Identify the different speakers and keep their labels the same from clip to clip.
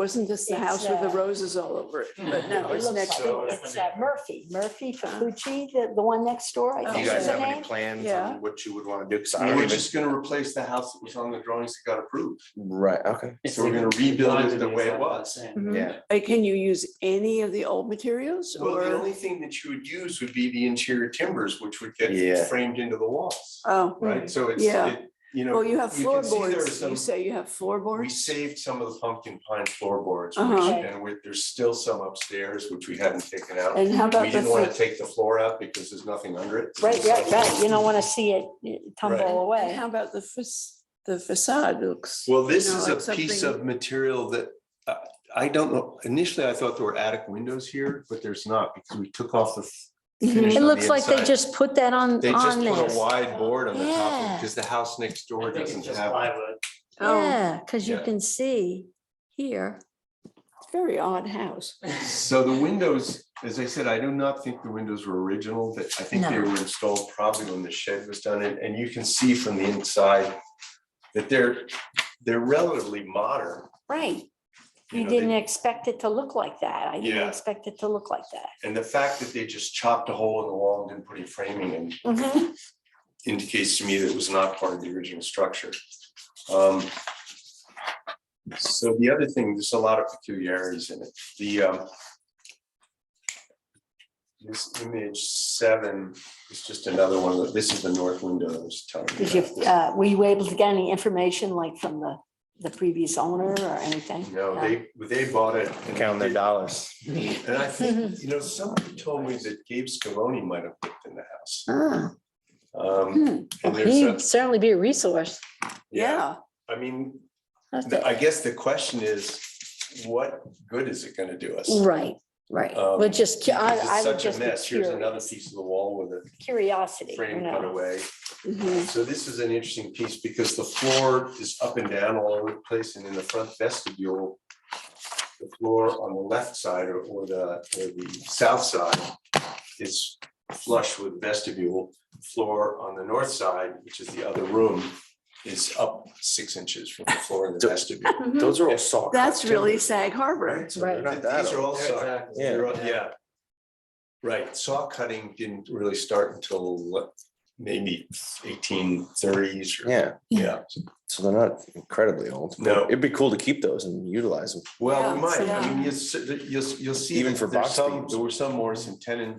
Speaker 1: Wasn't this the
Speaker 2: It's,
Speaker 1: house with the
Speaker 2: uh,
Speaker 1: roses all over it? But no,
Speaker 2: It
Speaker 1: it's
Speaker 2: looks
Speaker 1: next
Speaker 2: like
Speaker 1: door.
Speaker 2: it. It's uh, Murphy, Murphy Fukuchi, the, the one next door,
Speaker 1: Oh.
Speaker 2: I
Speaker 3: Do
Speaker 2: think
Speaker 3: you
Speaker 2: is
Speaker 3: guys
Speaker 2: the
Speaker 3: have any
Speaker 2: name.
Speaker 3: plans
Speaker 1: Yeah.
Speaker 3: on what you would want to do? Because I
Speaker 4: We
Speaker 3: don't
Speaker 4: We're
Speaker 3: even.
Speaker 4: just gonna replace the house that was on the drawings that got approved.
Speaker 3: Right, okay.
Speaker 4: So we're gonna rebuild it the way it was.
Speaker 1: Mhm.
Speaker 3: Yeah.
Speaker 1: Uh, Can you use any of the old materials
Speaker 4: Well, the
Speaker 1: or?
Speaker 4: only thing that you would use would be the interior timbers, which would
Speaker 3: Yeah.
Speaker 4: get framed into the walls,
Speaker 1: Oh,
Speaker 4: right?
Speaker 2: Mm,
Speaker 4: So it's,
Speaker 1: Yeah.
Speaker 4: it- you know.
Speaker 1: well, you have
Speaker 4: you can see there are
Speaker 1: floorboards. You
Speaker 4: some-
Speaker 1: say you have
Speaker 4: We
Speaker 1: floorboards?
Speaker 4: saved some of the pumpkin pine floorboards, which-
Speaker 1: Uh-huh.
Speaker 4: and we- there's still some upstairs, which we haven't taken out.
Speaker 1: And how
Speaker 4: We
Speaker 1: about the,
Speaker 4: didn't want to
Speaker 1: fr-
Speaker 4: take the floor out because there's nothing under it.
Speaker 2: Right, right, right. You don't want to see it uh,
Speaker 4: Right.
Speaker 2: tumble
Speaker 1: and
Speaker 2: away.
Speaker 1: how about the fac- the facade looks?
Speaker 4: Well, this
Speaker 1: You know,
Speaker 4: is
Speaker 1: like
Speaker 4: a piece
Speaker 1: something-
Speaker 4: of material that, uh, I don't know, initially I thought there were attic windows here, but there's not because we took off the f- finish
Speaker 2: It
Speaker 4: on
Speaker 2: looks
Speaker 4: the
Speaker 2: like they
Speaker 4: inside.
Speaker 2: just put that on,
Speaker 4: They just
Speaker 2: on
Speaker 4: put a
Speaker 2: there.
Speaker 4: wide board on the top of
Speaker 2: Yeah.
Speaker 4: it because the house next door
Speaker 5: I think
Speaker 4: doesn't
Speaker 5: it's just
Speaker 4: have.
Speaker 5: plywood.
Speaker 1: Oh,
Speaker 2: Yeah, because you
Speaker 4: Yeah.
Speaker 2: can see here.
Speaker 1: it's a very odd house.
Speaker 4: So the windows, as I said, I do not think the windows were original, but I think they
Speaker 2: No.
Speaker 4: were installed probably when the shed was done. And, and you can see from the inside that they're, they're relatively modern.
Speaker 2: Right.
Speaker 4: you
Speaker 2: You
Speaker 4: know, they-
Speaker 2: didn't expect it to look like that. I didn't
Speaker 4: Yeah.
Speaker 2: expect it to look like that.
Speaker 4: And the fact that they just chopped a hole in the wall and didn't put any framing in
Speaker 1: Mm-hmm.
Speaker 2: Mhm.
Speaker 4: indicates to me that it was not part of the original structure. Um, So the other thing, there's a lot of peculiarities in it. The um, this image seven is just another one. of the- This is the north window I was telling you.
Speaker 2: Did you,
Speaker 4: about.
Speaker 2: uh, were you able to get any information like from the, the previous owner or anything?
Speaker 4: No, they, they bought it. and
Speaker 3: Count their
Speaker 4: they-
Speaker 3: dollars.
Speaker 4: Mm-hmm. And I
Speaker 2: Mm-hmm.
Speaker 4: think, you know, somebody told me that Gabe Scavone might have lived in the house.
Speaker 1: Ah,
Speaker 4: Um,
Speaker 2: Hmm.
Speaker 4: and there's a-
Speaker 6: He'd certainly be a resource.
Speaker 1: yeah.
Speaker 4: I mean,
Speaker 6: That's
Speaker 4: the-
Speaker 6: it.
Speaker 4: I guess the question is, what good is it gonna do us?
Speaker 2: Right, right.
Speaker 4: Um,
Speaker 6: We're just, cu- I,
Speaker 4: because it's
Speaker 6: I would
Speaker 4: such a
Speaker 6: just be
Speaker 4: mess. Here's another
Speaker 6: curious.
Speaker 4: piece of the wall with a
Speaker 2: Curiosity, you
Speaker 4: frame cut
Speaker 2: know.
Speaker 4: away.
Speaker 1: Mhm.
Speaker 4: So this is an interesting piece because the floor is up and down all over the place and in the front vestibule. The floor on the left side or, or the, or the south side is flush with vestibule. Floor on the north side, which is the other room, is up six inches from the floor in the
Speaker 3: So-
Speaker 4: vestibule.
Speaker 3: Those are all saw. cut
Speaker 1: That's really
Speaker 3: timbers.
Speaker 1: Sag Harbor.
Speaker 4: So
Speaker 6: Mm-hmm.
Speaker 4: they're
Speaker 6: Right.
Speaker 4: not- These are all saw.
Speaker 5: Exactly.
Speaker 3: Yeah.
Speaker 4: They're all- Yeah. Right, saw cutting didn't really start until what, maybe eighteen thirties or.
Speaker 3: Yeah,
Speaker 4: Yeah,
Speaker 3: so they're not incredibly old. but
Speaker 4: No.
Speaker 3: It'd be cool to keep those and utilize them.
Speaker 4: well,
Speaker 1: Yeah,
Speaker 4: we might, I
Speaker 1: yeah.
Speaker 4: mean, you'll, s- you'll, you'll see.
Speaker 3: Even
Speaker 4: that
Speaker 3: for
Speaker 4: there's
Speaker 3: box
Speaker 4: some-
Speaker 3: beams.
Speaker 4: There were some Morrison tenon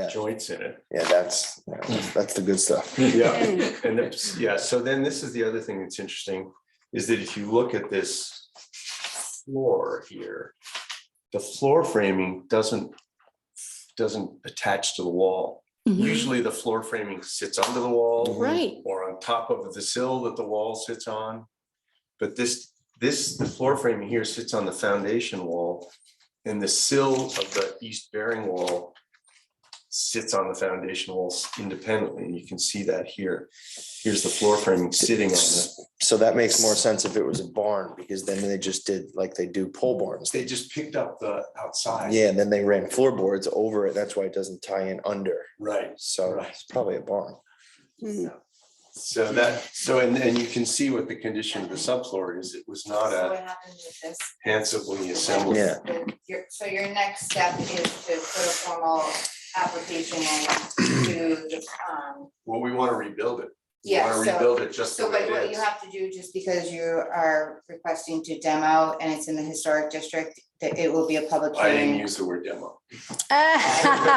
Speaker 3: Yeah,
Speaker 4: joints in it.
Speaker 3: yeah, that's, that's the good stuff.
Speaker 4: Yeah,
Speaker 1: Mm.
Speaker 4: and it's, yeah, so then this is the other thing that's interesting, is that if you look at this floor here, the floor framing doesn't, doesn't attach to the wall. Usually the floor framing sits under the wall
Speaker 2: Right.
Speaker 4: or on top of the sill that the wall sits on. But this, this, the floor framing here sits on the foundation wall and the sill of the east bearing wall sits on the foundation walls independently, and you can see that here. Here's the floor framing sitting on it.
Speaker 3: So that makes more sense if it was a barn, because then they just did like they do pole barns.
Speaker 4: They just picked up the outside.
Speaker 3: Yeah, and then they ran floorboards over it. That's why it doesn't tie in under.
Speaker 4: Right.
Speaker 3: So
Speaker 4: Right.
Speaker 3: it's probably a barn.
Speaker 1: Mhm.
Speaker 4: So that, so, and, and you can see what the condition of the subfloor is. It was not
Speaker 7: So
Speaker 4: a
Speaker 7: what happened with this?
Speaker 4: handsomely assembled.
Speaker 3: Yeah.
Speaker 7: Your- So your next step is to put a formal application in to the, um,
Speaker 4: Well, we want to rebuild it. We
Speaker 7: yeah,
Speaker 4: want to
Speaker 7: so.
Speaker 4: rebuild it just the
Speaker 7: So
Speaker 4: way
Speaker 7: but
Speaker 4: it
Speaker 7: what you
Speaker 4: is.
Speaker 7: have to do, just because you are requesting to demo and it's in the historic district, that it will be a public
Speaker 4: I didn't
Speaker 7: hearing.
Speaker 4: use the word demo.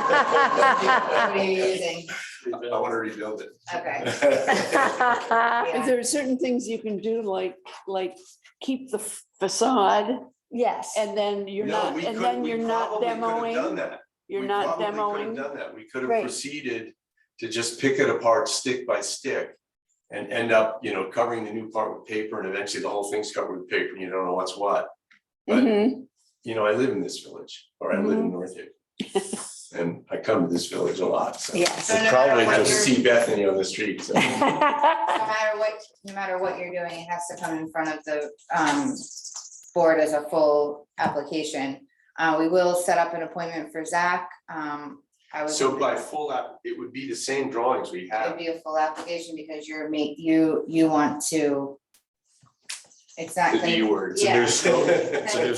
Speaker 7: What are you using?
Speaker 4: I want to rebuild it.
Speaker 7: Okay.
Speaker 1: If
Speaker 7: Yeah.
Speaker 1: There are certain things you can do, like, like keep the facade
Speaker 2: Yes.
Speaker 1: and then you're
Speaker 4: No,
Speaker 1: not,
Speaker 4: we
Speaker 1: and
Speaker 4: could-
Speaker 1: then
Speaker 4: we
Speaker 1: you're not
Speaker 4: probably could have Done
Speaker 1: demoing,
Speaker 4: that.
Speaker 1: you're
Speaker 4: We
Speaker 1: not
Speaker 4: probably could've
Speaker 1: demoing.
Speaker 4: Done that, we could have
Speaker 2: Right.
Speaker 4: proceeded to just pick it apart stick by stick. And end up, you know, covering the new part with paper and eventually the whole thing's covered with paper and you don't know what's what. But,
Speaker 1: Mhm.
Speaker 4: you know, I live in this village, or I
Speaker 1: Mm-hmm.
Speaker 4: live in North Haven. And I come to this village a lot, so.
Speaker 2: Yes.
Speaker 7: So no matter
Speaker 3: probably
Speaker 4: I
Speaker 7: what
Speaker 4: just
Speaker 7: you're-
Speaker 4: see Bethany on the street, so.
Speaker 7: No matter what, no matter what you're doing, it has to come in front of the um board as a full application. Uh, we will set up an appointment for Zach, um, I was.
Speaker 4: So by full app, it would be the same drawings we
Speaker 7: It'd
Speaker 4: have.
Speaker 7: be a full application because you're ma- you, you want to
Speaker 8: Exactly.
Speaker 4: the E D word, so
Speaker 8: Yeah.
Speaker 4: there's scope, so there's